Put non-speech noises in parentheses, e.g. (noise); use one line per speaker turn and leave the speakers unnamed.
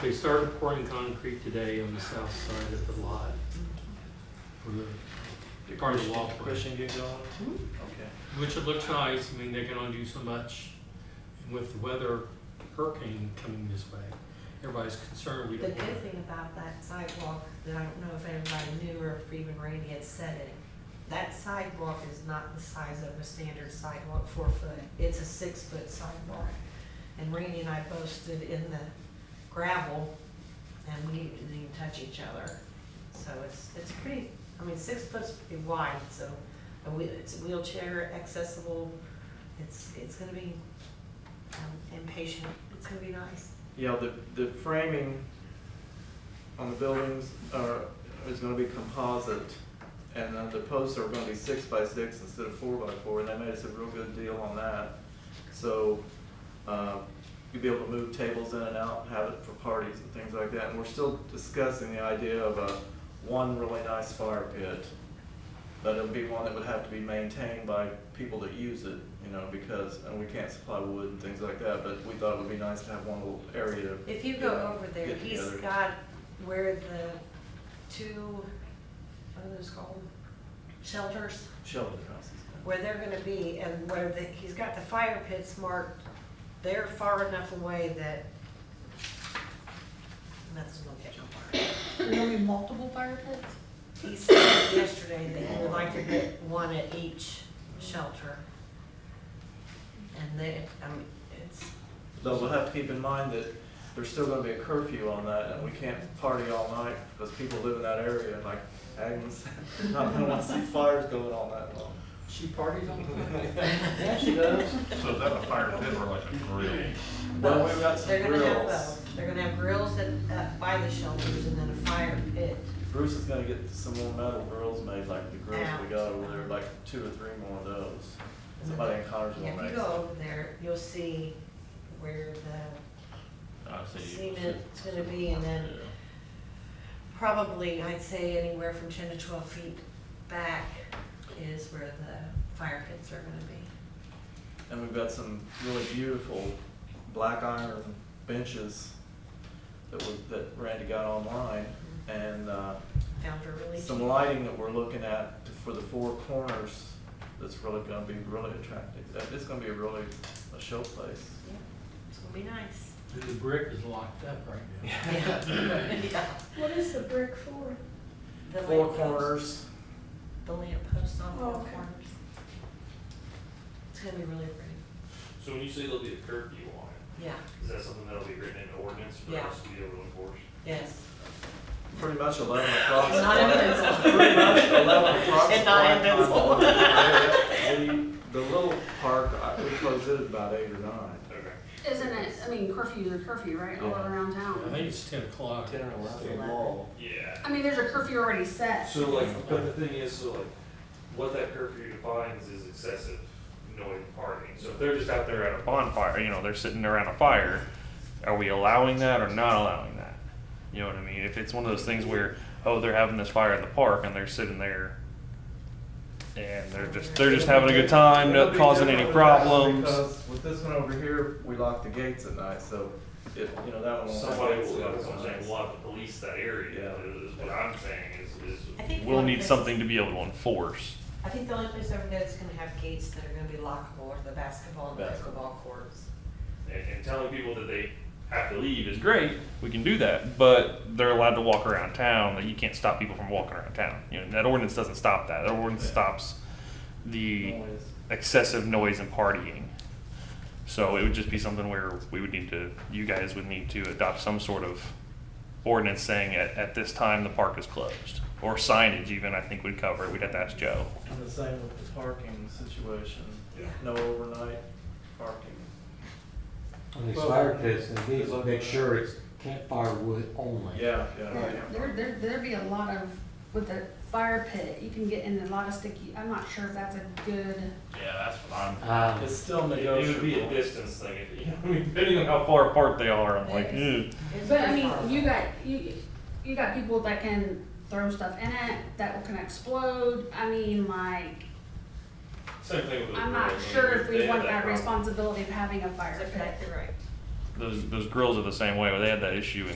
They started pouring concrete today on the south side of the lot. for the-
Did
Part of the
Christian-
walkway.
Christian get going? Okay.
Which it looks nice, I mean, they can only do so much. And with the weather hurricane coming this way, everybody's concerned we
The
don't
good
want.
thing about that sidewalk, that I don't know if everybody knew or if even Randy had said it, that sidewalk is not the size of a standard sidewalk, four foot, it's a six foot sidewalk. And Randy and I both stood in the gravel and we didn't even touch each other. So it's, it's pretty, I mean, six foot's pretty wide, so a wheel, it's wheelchair accessible, it's, it's gonna be um, impatient, it's gonna be nice.
Yeah, the, the framing on the buildings are, is gonna be composite, and uh, the posts are gonna be six by six instead of four by four, and they made us a real good deal on that. So, uh, you'll be able to move tables in and out, have it for parties and things like that, and we're still discussing the idea of a, one really nice fire pit. But it'll be one that would have to be maintained by people that use it, you know, because, and we can't supply wood and things like that, but we thought it would be nice to have one little area
If you
Yeah,
go over there,
get
he's
together.
got where the two, what are those called? Shelters,
shelter houses.
where they're gonna be and where the, he's got the fire pits marked. They're far enough away that nothing's gonna catch on fire.
There's only multiple fire pits?
He said yesterday that he would like to get one at each shelter. And they, I mean, it's,
Though we'll have to keep in mind that there's still gonna be a curfew on that, and we can't party all night, because people live in that area, and like Agnes, (laughs) not gonna wanna see fires going on that long.
She parties on Friday?
(laughs) Yeah, she does.
So is that a fire pit or like a grill?
Well, we've got some
They're gonna have
grills.
both. They're gonna have grills that, uh, by the shelters and then a fire pit.
Bruce is gonna get some more metal grills made, like the grills we
Out.
got over there, like two or three more of those. Somebody in Connersville
If you
makes.
go over there, you'll see where the
I see.
cement's gonna be and then probably, I'd say anywhere from ten to twelve feet back is where the fire pits are gonna be.
And we've got some really beautiful black iron benches that we, that Randy got online. And, uh,
Found are really
some
cheap.
lighting that we're looking at for the four corners that's really gonna be really attractive. That- It's gonna be really a showplace.
Yeah, It's gonna be
(laughs)
nice.
And the brick is locked up right now.
Yeah.
What is the brick for?
The
Four
lamp post-
corners,
The lamp posts on
Oh,
four
okay.
corners. It's gonna be really pretty.
So when you say there'll be a curfew on
Yeah,
it, is that something that'll be written into ordinance for
Yeah.
us to be able to enforce?
yes.
pretty
(laughs)
much eleven o'clock.
Not in pencil.
Pretty much eleven o'clock.
And not in
black iron.
pencil.
Yeah, yeah. (laughs) The, the little park, I, we closed it about eight or nine,
Okay.
Isn't it, I mean curfew is a curfew, right, all
Yeah.
around
(laughs) I
town?
think it's ten o'clock.
ten or eleven.
Yeah.
I mean, there's a curfew already set.
uh,
So like, but the thing is, so like, what that curfew defines is excessive noise and partying. So if they're just out there at a bonfire, you know, they're sitting around a fire, are we allowing that or not allowing that? You know what I mean? If it's one of those things where, oh, they're having this fire in the park and they're sitting there and they're just, they're just having a good time,
It'll
not
be
causing any
different with that
problems.
Because with this one over here, we lock the gates at night, so it, you know, that one. won't have
Somebody
gates,
will,
so
that's
it's
what I'm
nice.
saying, we'll have to police that area,
Yeah.
is what I'm saying, is,
I think
is
one
we'll
of
need
this-
something to be able to enforce.
I think the only place over there that's gonna have gates that are gonna be lockable are the basketball and
Basketball.
pickleball courts.
And, and telling people that they have to leave is great, we can do that, but they're allowed to walk around town, that you can't stop people from walking around town. You know, that ordinance doesn't stop that, that ordinance
Yeah.
stops the
Noise.
excessive noise and partying. So it would just be something where we would need to, you guys would need to adopt some sort of ordinance saying at, at this time the park is closed. Or signage even, I think would cover it, we'd have to ask Joe.
And the same with the parking situation,
Yeah.
no overnight parking.
On these fire pits, and these, make sure it's campfire wood only.
Yeah, yeah.
There, there, there'd be a lot of, with the fire pit, you can get in a lot of sticky, I'm not sure if that's a good,
Yeah, that's what I'm
Um,
It's still
It it would be a
negotiable.
distance thing, (laughs) if, you know, depending on how far apart they are, I'm like, ew.
but I mean, you got, you, you got people that can throw stuff in it, that can explode, I mean, like,
Same thing with the.
I'm not
grill, I
sure
mean,
if
they
we
had
want that
problem.
responsibility of having a fire
That's
pit.
exactly right.
Those, those grills are the same way, where they had that issue in